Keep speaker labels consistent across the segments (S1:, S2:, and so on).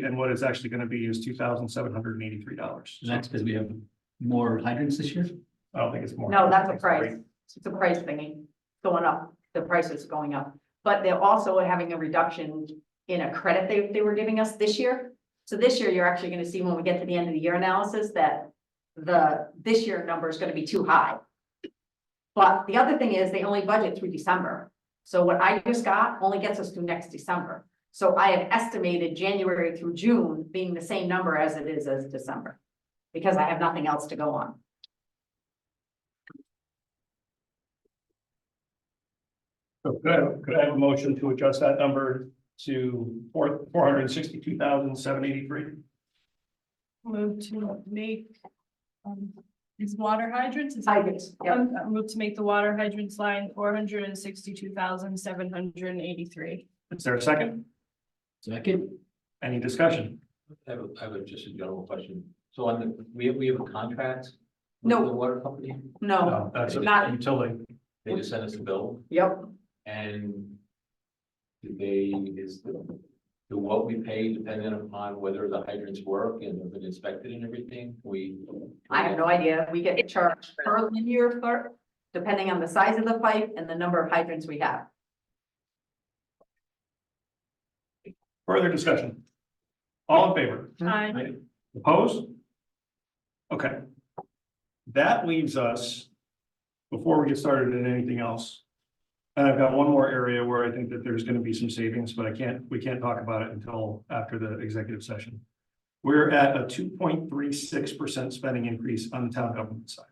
S1: and what is actually gonna be is two thousand seven hundred and eighty-three dollars.
S2: And That's because we have more hydrants this year?
S1: I don't think it's more.
S3: No, that's a price. It's a price thingy going up. The price is going up. But they're also having a reduction in a credit they, they were giving us this year. So this year, you're actually gonna see when we get to the end of the year analysis that the, this year number is gonna be too high. But the other thing is they only budget through December. So what I just got only gets us through next December. So I have estimated January through June being the same number as it is as December. Because I have nothing else to go on.
S1: So Could I, could I have a motion to adjust that number to four, four hundred and sixty-two thousand seven eighty-three?
S4: Move to make, um, these water hydrants. is-
S3: Hydrants, yeah.
S4: Um, uh, Move to make the water hydrants line four hundred and sixty-two thousand, seven hundred and eighty-three.
S1: Is there a second?
S2: Second,
S1: Any discussion?
S5: I have, a- I have a- just a general question. So on the, we have, we have a contract? with
S3: No.
S5: The water company,
S3: No,
S1: No, That's a
S3: Not-
S1: utility.
S5: they just sent us the bill
S3: yep,
S5: and do they, is the, do what we pay dependent upon whether the hydrants work and have been inspected and everything? We.
S3: I have no idea, we get charged per linear foot, depending on the size of the pipe and the number of hydrants we have.
S1: Further discussion? All in favor?
S4: Aye.
S1: Opposed? Okay. That leaves us, before we get started in anything else. And I've got one more area where I think that there's gonna be some savings, but I can't, we can't talk about it until after the executive session. We're at a two point three six percent spending increase on the town government side.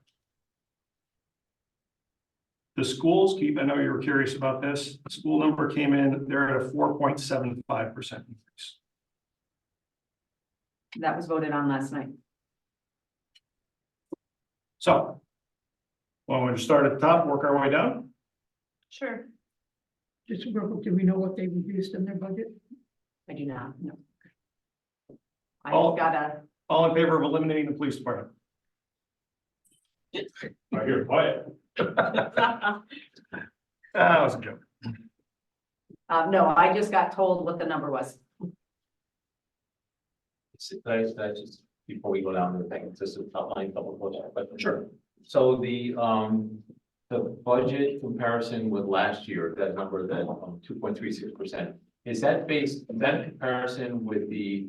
S1: The schools keep, I know you were curious about this, the school number came in, they're at a four point seven five percent increase.
S3: That was voted on last night.
S1: So. Well, we're to start at the top, work our way down.
S4: Sure.
S6: Just real quick, do we know what they reduced in their budget?
S3: I do not, no. I
S1: All-
S3: just got a,
S1: All in favor of eliminating the police department? I hear quiet. Ah, That was a joke.
S3: uh, no, I just got told what the number was.
S5: It's- That's, that's just, before we go down to the thing, just a top line couple of questions, but. Sure. So the, um, the budget comparison with last year, that number, that, um, two point three six percent. Is that based, is that in comparison with the,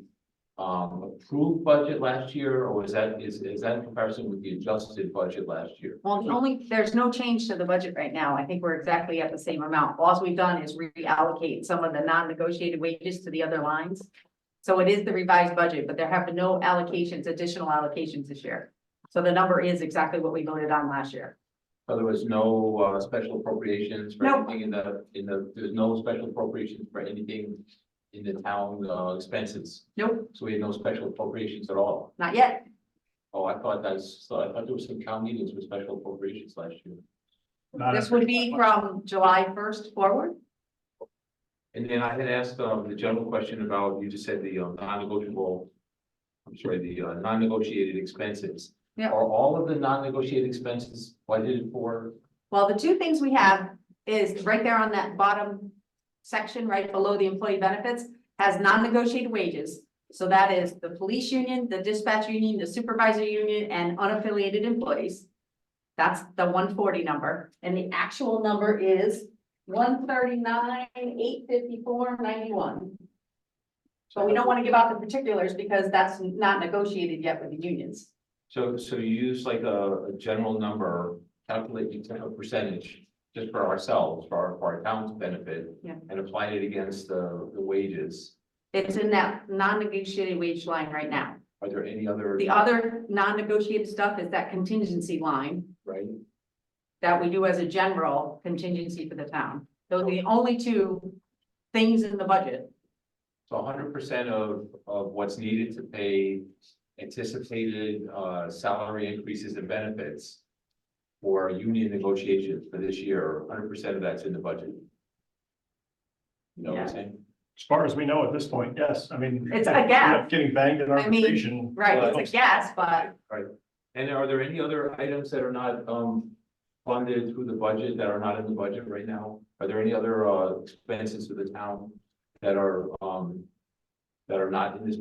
S5: um, approved budget last year, or is that, is, is that in comparison with the adjusted budget last year?
S3: Well, the only, there's no change to the budget right now. I think we're exactly at the same amount. All we've done is reallocate some of the non-negotiated wages to the other lines. So it is the revised budget, but there have been no allocations, additional allocations this year. So the number is exactly what we voted on last year.
S5: So there was no, uh, special appropriations for
S3: No.
S5: anything in the, in the, there's no special appropriations for anything in the town, uh, expenses,
S3: Nope,
S5: so we had no special appropriations at all.
S3: not yet.
S5: Oh, I thought that's, so I thought there was some town meetings with special appropriations last year.
S1: Not
S3: This would be from July first forward.
S5: And then I had asked, um, the general question about, you just said the um, non-negotiable. I'm sorry, the uh, non-negotiated expenses.
S3: Yeah.
S5: Are all of the non-negotiated expenses budgeted for?
S3: Well, the two things we have is right there on that bottom section, right below the employee benefits, has non-negotiated wages. So that is the police union, the dispatch union, the supervisor union, and unaffiliated employees. That's the one forty number, and the actual number is one thirty-nine, eight fifty-four, ninety-one. But we don't want to give out the particulars because that's not negotiated yet with the unions.
S5: So, so you use like a, a general number, calculate the total percentage just for ourselves, for our, for our town's benefit.
S3: Yeah.
S5: And apply it against the, the wages.
S3: It's in that non-negotiated wage line right now.
S5: Are there any other?
S3: The other non-negotiated stuff is that contingency line
S5: Right?
S3: that we do as a general contingency for the town. Those are the only two things in the budget.
S5: So hundred percent of, of what's needed to pay anticipated, uh, salary increases and benefits for union negotiations for this year, hundred percent of that's in the budget. You know what I'm
S3: Yeah.
S5: saying?
S1: As far as we know at this point, yes, I mean.
S3: It's a
S1: we end
S3: gap.
S1: up Getting banged in
S3: I mean,
S1: arbitration.
S3: Right, it's a guess, but
S5: Right. And are there any other items that are not, um, funded through the budget that are not in the budget right now? Are there any other, uh, expenses to the town that are, um, that are not in this